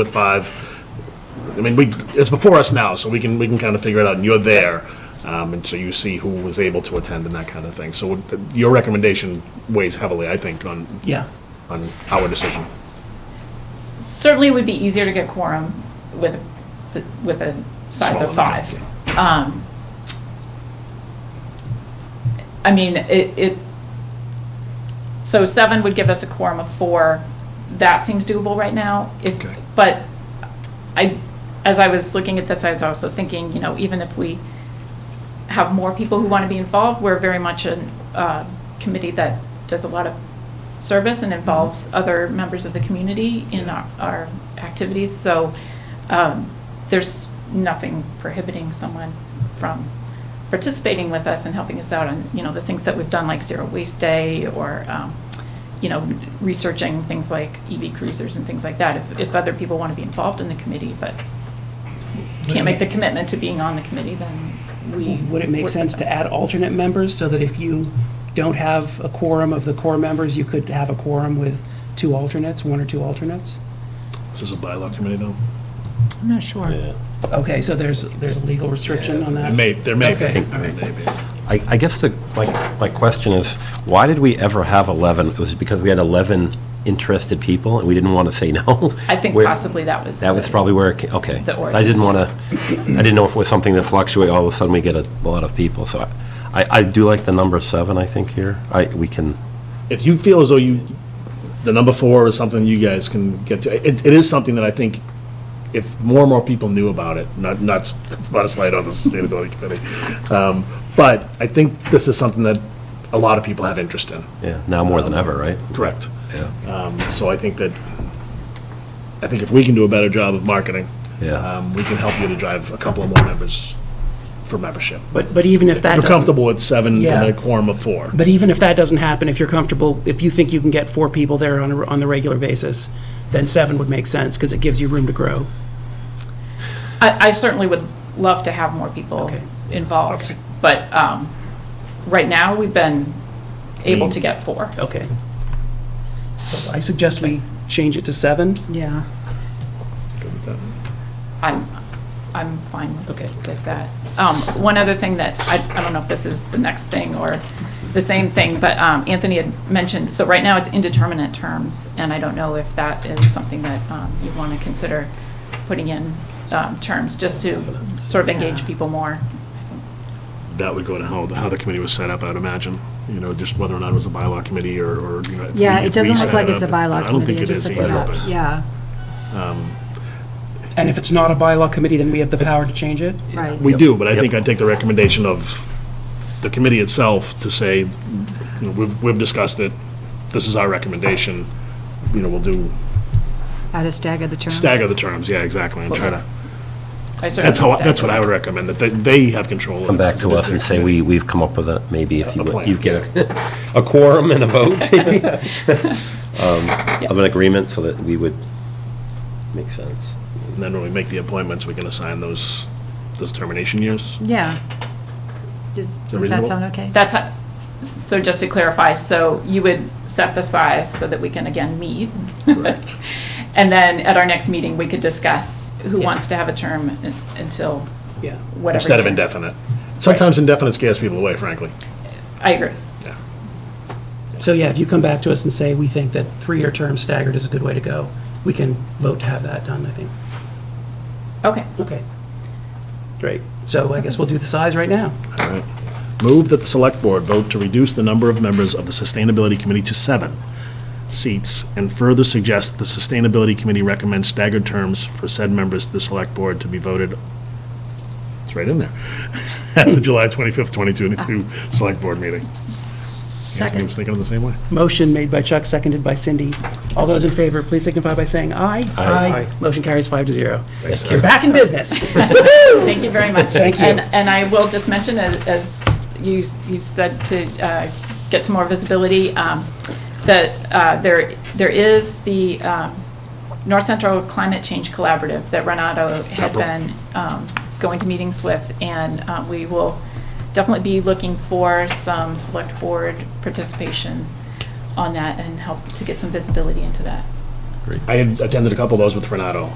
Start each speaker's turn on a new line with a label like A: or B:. A: with five. I mean, we, it's before us now, so we can, we can kind of figure it out, and you're there. Um, and so you see who was able to attend and that kind of thing. So uh, your recommendation weighs heavily, I think, on,
B: Yeah.
A: on our decision.
C: certainly it would be easier to get quorum with, with a size
A: Smaller,
C: of five.
A: yeah.
C: Um, I mean, it, it, so seven would give us a quorum of four. That seems doable right now. If,
A: Okay.
C: but I, as I was looking at this, I was also thinking, you know, even if we have more people who want to be involved, we're very much a uh, committee that does a lot of service and involves other members of the community in our, our activities. So um, there's nothing prohibiting someone from participating with us and helping us out on, you know, the things that we've done, like Zero Waste Day, or, um, you know, researching things like EV cruisers and things like that, if, if other people want to be involved in the committee, but can't make the commitment to being on the committee, then we.
B: Would it
C: work
B: make
C: with
B: sense
C: them.
B: to add alternate members so that if you don't have a quorum of the core members, you could have a quorum with two alternates, one or two alternates?
A: Is this a bylaw committee, though?
D: I'm not sure.
B: Okay, so there's, there's a legal restriction on
A: There
B: that?
A: may, there may
B: Okay.
A: be. There may be.
E: I, I guess the, my, my question is, why did we ever have 11? It was because we had 11 interested people, and we didn't want to say no?
C: I think
E: Where-
C: possibly that was.
E: That was
C: the-
E: probably where, it ca- okay.
C: The origin.
E: I didn't want to, I didn't know if it was something that fluctuated, all of a sudden we get a lot of people, so I- I, I do like the number seven, I think, here. I, we can,
A: if you feel as though you, the number four is something you guys can get to, it, it is something that I think if more and more people knew about it, not, not, it's not a slight on the sustainability committee, um, but I think this is something that a lot of people have interest in.
E: yeah, now more than ever, right?
A: Correct.
E: Yeah.
A: Um, so I think that, I think if we can do a better job of marketing,
E: Yeah.
A: um, we can help you to drive a couple of more members for membership.
B: But, but even if that
A: You're
B: doesn't...
A: comfortable with seven
B: Yeah.
A: and a quorum of four.
B: But even if that doesn't happen, if you're comfortable, if you think you can get four people there on, a- on the regular basis, then seven would make sense, because it gives you room to grow.
C: I, I certainly would love to have more people
B: Okay.
C: involved, but, um, right now, we've been able to get four.
B: Okay. I suggest we change it to seven.
D: Yeah.
C: I'm, I'm fine with
B: Okay.
C: with that. Um, One other thing that, I I don't know if this is the next thing or the same thing, but um, Anthony had mentioned, so right now it's indeterminate terms, and I don't know if that is something that um, you want to consider putting in um, terms, just to sort of engage people more.
A: that would go to how, how the committee was set up, I would imagine. You know, just whether or not it was a bylaw committee or, or, you know. if we-
D: Yeah,
A: if
D: it
A: we
D: doesn't
A: set
D: look like
A: it
D: it's a
A: up.
D: bylaw
A: I don't think
D: committee,
A: it
D: it just
A: is
D: looked
A: either,
D: like
A: but-
D: that, yeah,
B: And if it's not a bylaw committee, then we have the power to change it?
D: right.
A: We do, but I think I'd take the recommendation of the committee itself to say, you know, we've, we've discussed it, this is our recommendation, you know, we'll do,
D: How to stagger the terms.
A: stagger the terms, yeah, exactly, and try to,
C: I certainly
A: that's how,
C: would
A: that's
C: stagger.
A: what I would recommend, that they, they have control.
E: Come back to us and say, we, we've come up with a, maybe if you,
A: A plan.
E: you get a, a quorum and a vote, maybe, um, of an agreement, so that we would, make sense.
A: And then when we make the appointments, we can assign those, those termination years.
D: Yeah. Does, does that
A: reasonable?
D: sound okay?
C: That's how, so just to clarify, so you would set the size so that we can again meet? And then at our next meeting, we could discuss who
B: Yeah.
C: wants to have a term un- until
B: Yeah.
C: whatever.
A: Instead of
C: year.
A: indefinite. Sometimes indefinite scares people away, frankly.
C: I agree.
A: Yeah.
B: So yeah, if you come back to us and say, we think that three-year term staggered is a good way to go, we can vote to have that done, I think.
C: Okay.
B: Okay. Great. So I guess we'll do the size right now.
A: All right. Move that the Select Board vote to reduce the number of members of the Sustainability Committee to seven seats, and further suggest that the Sustainability Committee recommends staggered terms for said members to the Select Board to be voted, it's right in there, at the July 25th, 2022 Select Board meeting. Anthony was thinking of the same way.
B: Motion made by Chuck, seconded by Cindy. All those in favor, please signify by saying aye. Aye. Motion carries five to zero. You're back in business.
C: Thank you very much.
B: Thank you.
C: And, and I will just mention, as, as you, you said, to uh, get some more visibility, um, that uh, there, there is the um, North Central Climate Change Collaborative that Renato had
A: Capital.
C: been um, going to meetings with, and uh, we will definitely be looking for some select board participation on that and help to get some visibility into that.
A: I had attended a couple of those with Renato.